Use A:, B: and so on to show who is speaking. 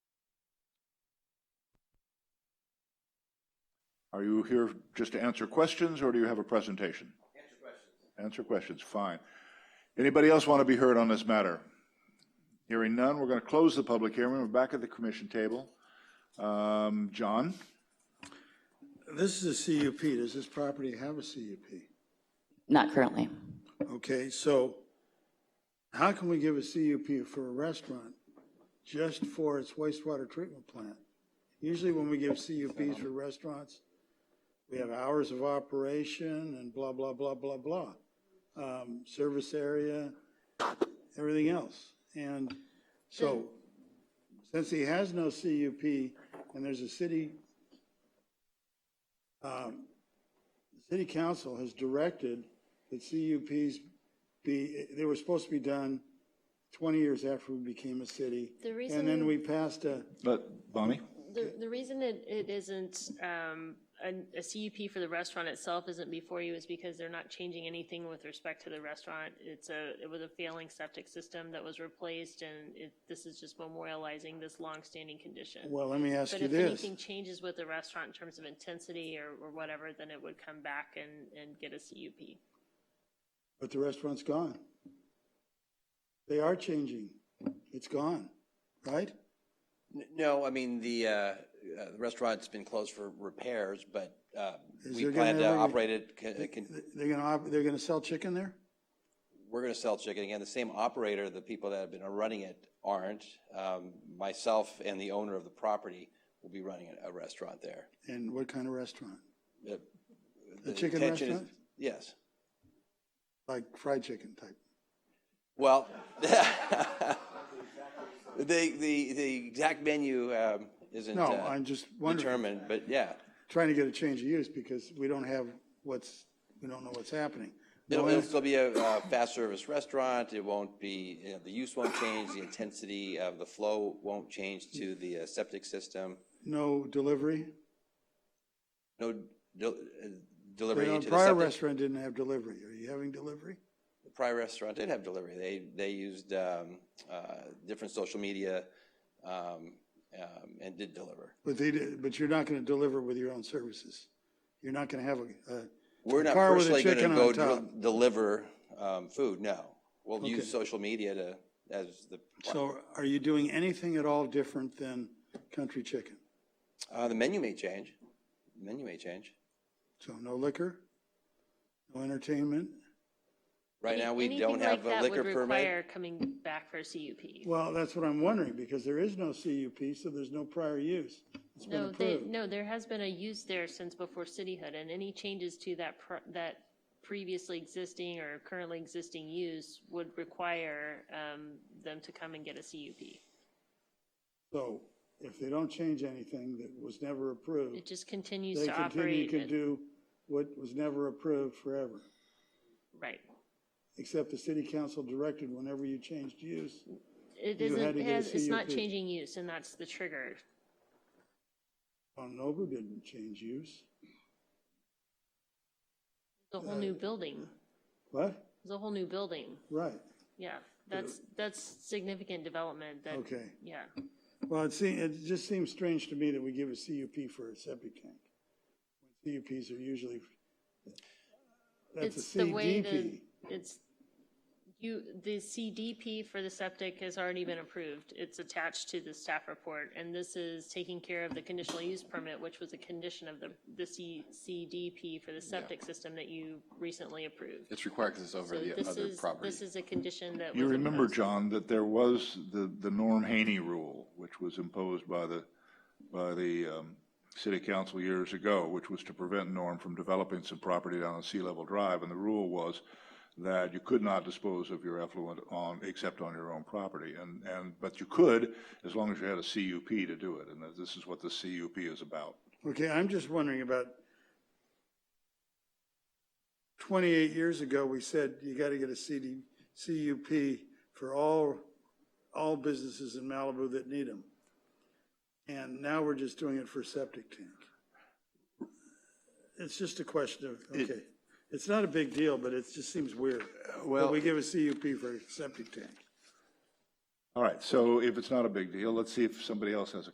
A: Are you here just to answer questions, or do you have a presentation? Answer questions. Answer questions, fine. Anybody else want to be heard on this matter? Hearing none, we're going to close the public hearing. We're back at the commission table. Um, John?
B: This is a CUP. Does this property have a CUP?
C: Not currently.
B: Okay, so how can we give a CUP for a restaurant just for its wastewater treatment plant? Usually when we give CUPs for restaurants, we have hours of operation and blah, blah, blah, blah, blah. Um, Service area, everything else. And so since he has no CUP and there's a city um, City council has directed that CUPs be, they were supposed to be done 20 years after we became a city.
D: The
B: And then
D: reason-
B: we passed a,
A: But Bonnie?
D: The, the reason it, it isn't, um, an- a, CUP for the restaurant itself isn't before you is because they're not changing anything with respect to the restaurant. It's a, it was a failing septic system that was replaced and it, this is just memorializing this longstanding condition.
B: well, let me ask
D: But
B: you
D: if
B: this.
D: anything changes with the restaurant in terms of intensity or, or whatever, then it would come back and, and get a CUP.
B: But the restaurant's gone. They are changing. It's gone, right?
E: N- No, I mean, the, uh, uh, the restaurant's been closed for repairs, but, uh,
B: Is
E: we
B: there
E: plan
B: gonna
E: to
B: ever be-
E: operate it, can, can,
B: Th- They're gonna, op- they're gonna sell chicken there?
E: we're gonna sell chicken again. The same operator, the people that have been running it aren't. Um, myself and the owner of the property will be running a- a restaurant there. Uh,
B: And what kind of restaurant?
E: The-
B: A chicken
E: intention is-
B: restaurant?
E: Yes.
B: Like fried chicken type?
E: Well, the, the, the exact menu, um, isn't,
B: No,
E: uh,
B: I'm just wondering,
E: determined, but yeah.
B: trying to get a change of use because we don't have what's, we don't know what's happening.
E: It'll,
B: Well,
E: it'll still be a, uh fast service restaurant. It won't be, you know, the use won't change, the intensity of the flow won't change to the uh, septic system.
B: No delivery?
E: No del- uh,
B: You
E: delivery
B: know,
E: into the
B: Prior
E: septic.
B: restaurant didn't have delivery. Are you having delivery?
E: Prior restaurant did have delivery. They, they used, um, uh, different social media, um, um, and did deliver.
B: But they, did- but you're not going to deliver with your own services. You're not going to have a, a-
E: We're not
B: Car with a
E: personally gonna
B: chicken
E: go
B: on top.
E: del- deliver, um, food, no. We'll
B: Okay.
E: use social media to, as the,
B: so are you doing anything at all different than country chicken?
E: uh, the menu may change. Menu may change.
B: So no liquor? No entertainment?
E: Right
D: Any-
E: now, we
D: anything
E: don't have
D: like
E: a
D: that would
E: liquor permit.
D: require Coming back for a CUP.
B: Well, that's what I'm wondering because there is no CUP, so there's no prior use. It's been
D: No, they,
B: approved.
D: no, there has been a use there since before cityhood, and any changes to that, pr- that previously existing or currently existing use would require um, them to come and get a CUP.
B: So if they don't change anything that was never
D: It
B: approved,
D: just continues
B: they
D: to
B: continue
D: operate.
B: to
D: at-
B: do what was never approved forever.
D: Right.
B: Except the city council directed whenever you changed use,
D: It
B: You had
D: isn't,
B: to
D: it
B: get a
D: has- it's not
B: CUP.
D: changing use, and that's the trigger.
B: Mount Nobu didn't change use.
D: The whole new building,
B: What?
D: the whole new building,
B: Right,
D: yeah. That's, that's significant development that,
B: okay.
D: yeah.
B: Well, it seems, it just seems strange to me that we give a CUP for a septic tank. CUPs are usually, that's a
D: It's the way the,
B: CDP.
D: it's, you, the CDP for the septic has already been approved. It's attached to the staff report, and this is taking care of the conditional use permit, which was a condition of the, the C, CDP for the septic system that you recently approved.
F: It's required because it's over
D: So
F: the
D: this
F: other
D: is,
F: property.
D: this is a condition that was
A: You remember,
D: imposed.
A: John, that there was the, the Norm Haney rule, which was imposed by the, by the um, city council years ago, which was to prevent Norm from developing some property down on Sea Level Drive. And the rule was that you could not dispose of your effluent on, except on your own property. And, and, but you could, as long as you had a CUP to do it. And this is what the CUP is about.
B: Okay, I'm just wondering about, twenty-eight years ago, we said you gotta get a CD, CUP for all, all businesses in Malibu that need them. And now we're just doing it for septic tank. It's just a question of, okay, it's not a big deal, but it just seems weird. Well. We give a CUP for a septic tank.
A: All right, so if it's not a big deal, let's see if somebody else has a